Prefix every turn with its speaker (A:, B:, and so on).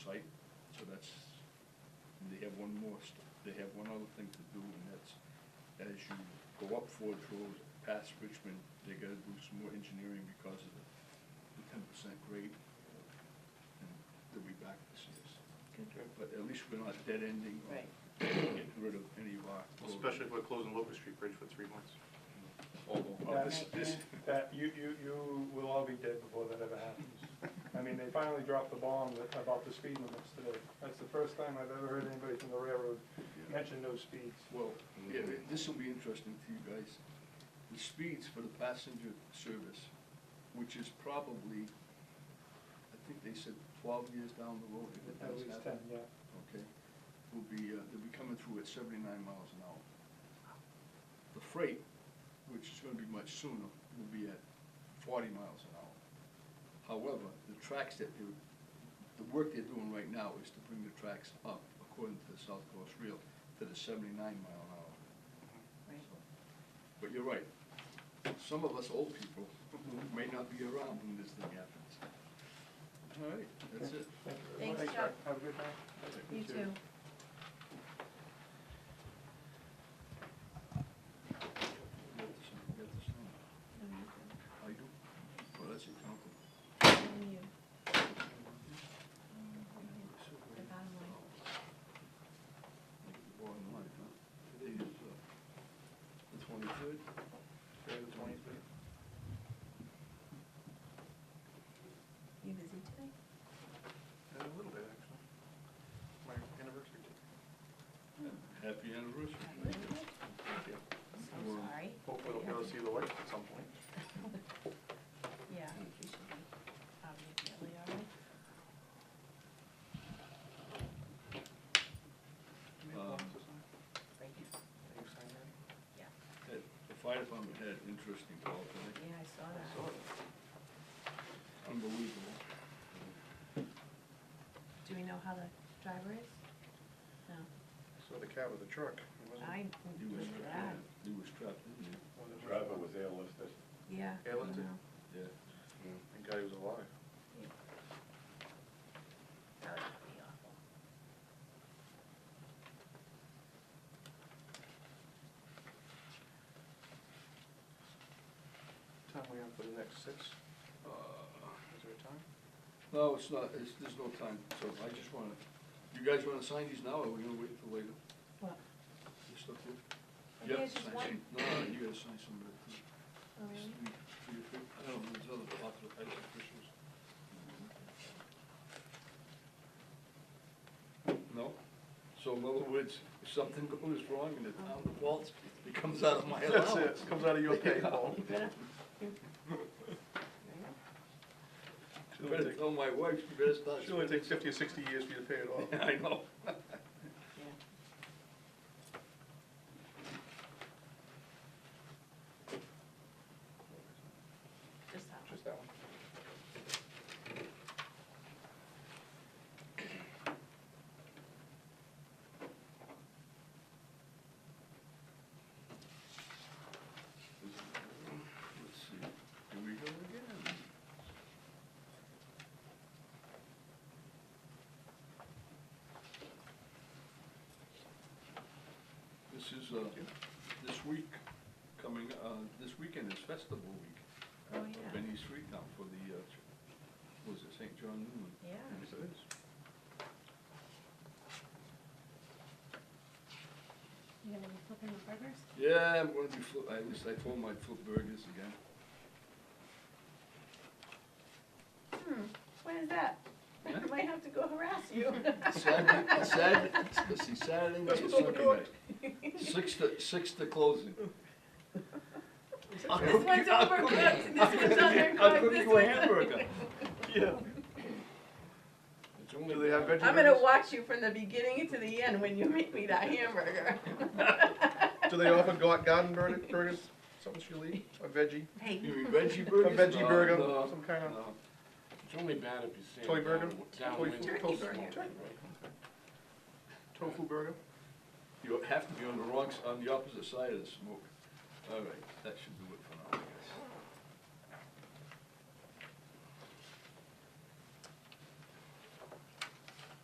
A: so that's, they have one more, st- they have one other thing to do, and that's, as you go up Forge Road, past Richmond, they gotta do some more engineering because of the the ten percent grade, and they'll be back this year.
B: Good.
A: But at least we're not dead ending. or
B: Right.
A: Getting rid of any of our. roads.
C: Especially if we're closing Locust Street Bridge for three months.
A: Oh, this, this,
D: That, you, you, you will all be dead before that ever happens. I mean, they finally dropped the bomb that- about the speed limits today. That's the first time I've ever heard anybody from the railroad mention those speeds.
A: Well, yeah, this will be interesting to you guys. The speeds for the passenger service, which is probably, I think they said twelve years down the road. if it
D: At
A: does
D: least ten,
A: happen,
D: yeah.
A: Okay, will be, uh, they'll be coming through at seventy-nine miles an hour. The freight, which is gonna be much sooner, will be at forty miles an hour. However, the tracks that they're, the work they're doing right now is to bring the tracks up, according to the South Coast Rail, to the seventy-nine mile an hour.
B: Right.
A: So, But you're right, some of us old people may not be around when this thing happens. All right, that's it.
D: Thank you very
B: Thanks,
D: much.
B: Chuck.
D: Have a good night.
B: You too.
A: I do. Well, that's your company.
B: And you. The bottom line.
A: Bottom line, huh? Today is, uh, the twenty-third. Friday the twenty-third.
B: You busy today?
C: A little bit, actually. My anniversary.
A: Happy anniversary.
B: Happy anniversary.
A: Thank you.
B: So sorry.
C: Hopefully we'll be able to see the lights at some point.
B: Yeah, I think you should be, um, definitely all right.
A: Um,
B: Right now. Yeah,
A: Ted, The fire department had an interesting call tonight,
B: yeah, I saw that.
A: unbelievable.
B: Do we know how the driver is? No.
C: So the cab of the truck. it wasn't-
B: I
A: He was
B: was
A: trapped,
B: that.
A: in- he was trapped, didn't
C: wasn't it?
E: Driver was airlifted.
B: Yeah.
C: Yeah, let's do.
B: no.
A: he? Yeah.
C: And guy was alive.
B: Yeah. That would be awful.
C: Time we have for the next six?
A: Uh,
C: Is there a time?
A: No, it's not, it's, there's no time, so I just wanna, you guys wanna sign these now, or are we gonna wait till later?
B: What?
A: This stuff here?
B: I think
A: Yeah,
B: it's just
A: sign
B: one.
A: some- No, no, you gotta sign some of it. too.
B: Oh, really?
A: Just three- three or three- I don't know, there's other popular types of officials. No? So in other words, if something goes wrong in the town of Waltz, it comes out of my
C: That's
A: allowance.
C: it, it comes out of your pay, Paul.
B: You better, you-
A: You Better tell my wife, she better start.
C: It only takes fifty or sixty years for you to pay it off.
A: Yeah, I know.
B: yeah. Just that one.
C: Just that one.
A: Let's see, here we go again. This is, uh, this week, coming, uh, this weekend is festival week. uh,
B: Oh,
A: up
B: yeah.
A: in East Street now for the, uh, what was it, St. John Newman?
B: Yeah.
A: Yes, it is.
B: You gonna be flipping the burgers?
A: Yeah, I'm gonna be flip, at least I told my flip burgers again.
B: Hmm, when is that? I
A: Yeah.
B: might have to go harass you.
A: Saturday, Saturday, let's see, Saturday night
C: That's
A: or
C: what's on the
A: Sunday
C: card.
A: night. Six to, six to closing. I'll
B: This
A: cook
B: one's
A: you- I'll
B: overcooked,
A: cook you-
B: this
A: I'll
B: one's
A: cook you- I'll
B: undercooked,
A: cook
B: this
A: you a
B: one's-
A: hamburger.
C: Yeah.
A: It's only-
C: Do they have veggie-
B: I'm gonna watch you from the beginning to the end when you make me that hamburger.
C: Do they offer gar- garden burger- burgers, something she'll eat, a veggie,
B: Hey,
A: You mean veggie
C: a
A: burgers?
C: veggie
A: No,
C: burger,
A: no,
C: some kind of,
A: no.
E: It's only bad if you say.
C: Toy burger? Toy
E: Downwind.
C: food?
B: turkey burger.
C: tofu burger?
A: You have to be on the wrong, s- on the opposite side of the smoke. All right, that should do